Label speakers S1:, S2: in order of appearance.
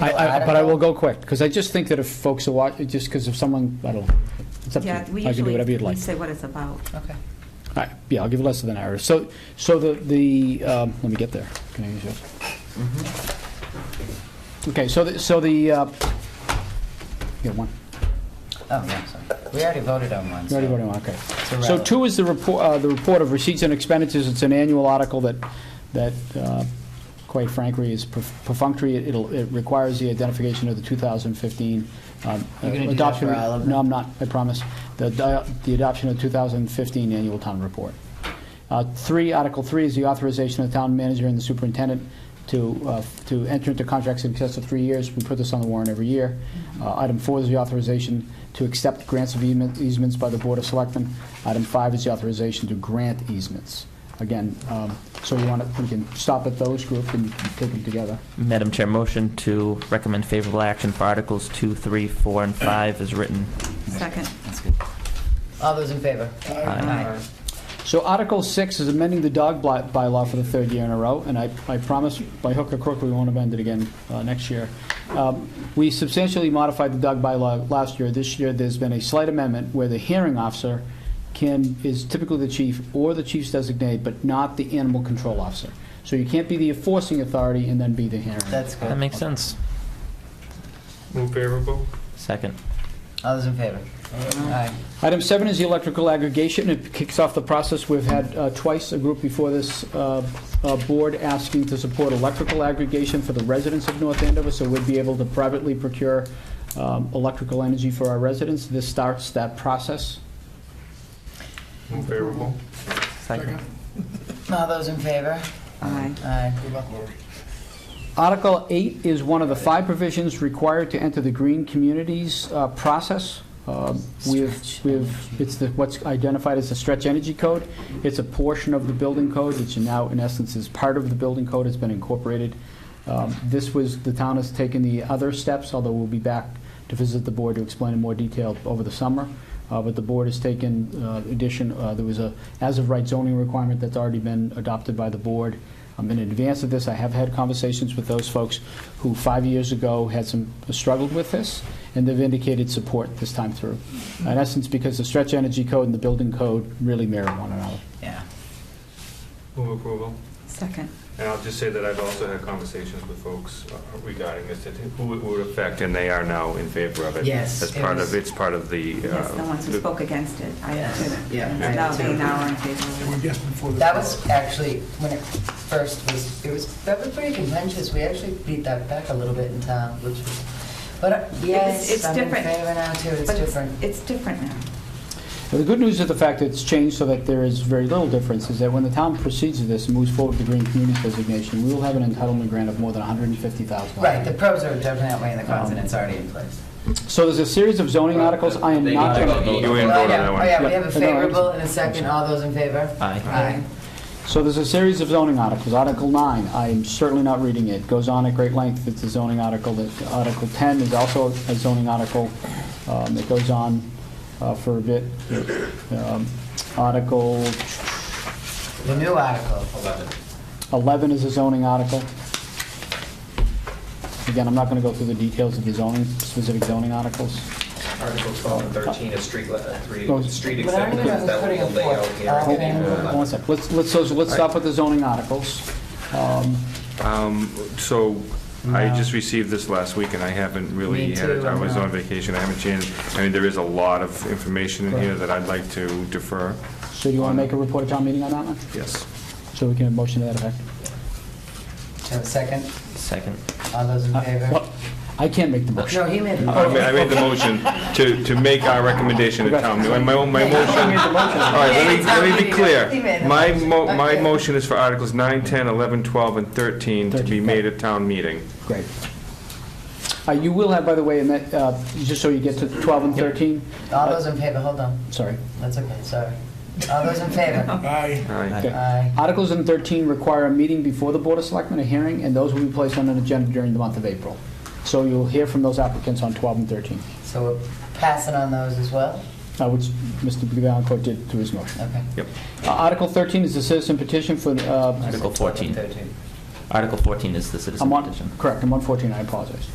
S1: I, I,
S2: don't
S1: but I
S2: know.
S1: will go quick, because I just think that if folks are watching, just because if someone, I don't, it's up to you.
S3: Yeah, we
S1: I can do
S3: usually,
S1: whatever you'd
S3: we
S1: like. Oh,
S3: say what it's about.
S2: Okay.
S1: All right, yeah, I'll give less of an hour. So, so the, the, um, let me get there. Can I use yours? Okay, so, the- so the, uh, you got one?
S2: Oh, yeah, sorry. We already voted on one.
S1: You already
S2: so-
S1: voted on, okay. So
S2: irrelevant.
S1: two is the report, uh, the report of receipts and expenditures. It's an annual article that, that, uh, quite frankly, is perf- perfunctory. It'll, it requires the identification of the 2015, um,
S2: You're gonna do that
S1: adoption.
S2: for all of them?
S1: No, I'm not, I promise. The, di- the adoption of 2015 annual town report. Uh, Three, Article Three is the authorization of the town manager and the superintendent to, uh, to enter into contracts in excess of three years. We put this on the warrant every year. Uh, Item four is the authorization to accept grants of easement- easements by the Board of Selectmen. Item five is the authorization to grant easements. Again, um, so you want to, we can stop at those group and take them together.
S4: Madam Chair, motion to recommend favorable action for Articles 2, 3, 4, and 5 is written.
S3: Second,
S2: That's good. All those in favor?
S4: Aye.
S1: So Article 6 is amending the dog bly- bylaw for the third year in a row, and I I promise by hook or crook, we won't amend it again uh, next year. Um, We substantially modified the dog bylaw last year. This year, there's been a slight amendment where the hearing officer can, is typically the chief or the chief's designate, but not the animal control officer. So you can't be the enforcing authority and then be the hearing.
S2: That's good.
S4: That makes sense.
S5: Move favorable.
S4: Second.
S2: All those in favor? Aye.
S1: Item seven is the electrical aggregation. It kicks off the process. We've had uh, twice a group before this uh, uh, board asking to support electrical aggregation for the residents of North Andover, so we'd be able to privately procure um, electrical energy for our residents. This starts that process.
S5: Move favorable.
S4: Second.
S2: All those in favor?
S3: aye.
S2: Aye.
S1: Article 8 is one of the five provisions required to enter the green communities uh, process. Um, We've,
S2: Stretch
S1: we've, it's the, what's identified as the stretch energy code. It's a portion of the building code, which now in essence is part of the building code, it's been incorporated. Um, This was, the town has taken the other steps, although we'll be back to visit the board to explain in more detail over the summer. Uh, But the board has taken uh, addition, uh, there was a as-of-right zoning requirement that's already been adopted by the board. Um, In advance of this, I have had conversations with those folks who five years ago had some, struggled with this, and they've indicated support this time through. In essence, because the stretch energy code and the building code really mirror one another.
S2: Yeah.
S5: Move approval.
S3: Second,
S5: And I'll just say that I've also had conversations with folks uh, regarding this, that who it would affect, and they are now in favor of it.
S2: Yes,
S5: As
S2: it
S5: part
S2: was-
S5: of, it's part of the.
S3: yes, the
S5: uh,
S3: ones who
S5: the-
S3: spoke against it, I
S2: Yes,
S3: did.
S2: yeah,
S3: And
S2: I did
S3: now they
S2: too.
S3: now are in favor of it.
S6: Just before the.
S2: That was actually, when it first was, it was, that was pretty contentious. We actually beat that back a little bit in town, which was, but uh, yes,
S3: it's
S2: I'm in
S3: different.
S2: favor now too. It's
S3: But
S2: different.
S3: It's different now.
S1: Now, The good news is the fact that it's changed so that there is very little difference, is that when the town proceeds with this and moves forward with the green communities designation, we will have an entitlement grant of more than $150,000.
S2: Right, the pros are definitely and the cons,
S1: Um,
S2: and it's already in place.
S1: So there's a series of zoning articles, I am
S7: They
S1: not
S7: gotta
S1: going
S7: go.
S1: to...
S5: You in
S2: Well,
S5: vote on
S2: yeah.
S5: that one?
S2: Oh, yeah, we
S1: Yeah.
S2: have a
S1: No, I'm-
S2: favorable and a second. All those in favor?
S4: Aye.
S2: Aye.
S1: So there's a series of zoning articles. Article 9, I'm certainly not reading it, goes on at great length, it's a zoning article. that- Article 10 is also a zoning article um, that goes on uh, for a bit. Um, Article
S2: The new article.
S1: 11 is a zoning article. Again, I'm not going to go through the details of the zoning, specific zoning articles.
S7: Article 12 and 13 is street, le- uh, three,
S1: Oh.
S7: street
S2: But I don't
S7: acceptance,
S2: even know
S7: that
S2: who's
S7: will be
S2: putting it
S7: layout
S2: forth.
S7: here.
S2: Uh,
S1: Hold
S2: Okay.
S1: on One sec, let's, let's, so let's stop with the zoning articles. Um,
S5: Um, So I
S2: No.
S5: just received this last week, and I haven't really
S2: Me
S5: had it.
S2: too,
S5: I
S2: I
S5: was
S2: know.
S5: on vacation, I haven't changed. I mean, there is a lot of information in here
S1: Right.
S5: that I'd like to defer.
S1: So do you want to make a report at town meeting on that one?
S5: Yes.
S1: So we can motion to that effect?
S2: Have a second?
S4: Second.
S2: All those in favor?
S1: Well, I can't make the motion.
S2: No, he made the
S5: I made,
S2: motion.
S5: I made the motion to, to make our recommendation to town. My, my my motion, all right, let me, let me be
S2: He made
S5: clear.
S2: the
S5: My,
S2: motion.
S5: mo- my
S2: Okay.
S5: motion is for Articles 9, 10, 11, 12, and 13 to be
S1: 13,
S5: made at town meeting.
S1: Great. Uh, You will have, by the way, in that, uh, just so you get to 12 and 13,
S2: All those in favor, hold on.
S1: sorry.
S2: That's okay, sorry. All those in favor?
S6: Aye.
S5: All right.
S1: Okay.
S2: Aye.
S1: Articles in 13 require a meeting before the Board of Selectmen, a hearing, and those will be placed on an agenda during the month of April. So you'll hear from those applicants on 12 and 13,
S2: So we're passing on those as well?
S1: uh, which Mr. Valencourt did through his motion.
S2: Okay.
S5: Yep.
S1: Uh, Article 13 is a citizen petition for, uh,
S4: Article 14.
S2: Thirteen.
S4: Article 14 is the citizen
S1: I'm on,
S4: petition.
S1: correct, I'm on 14, I apologize.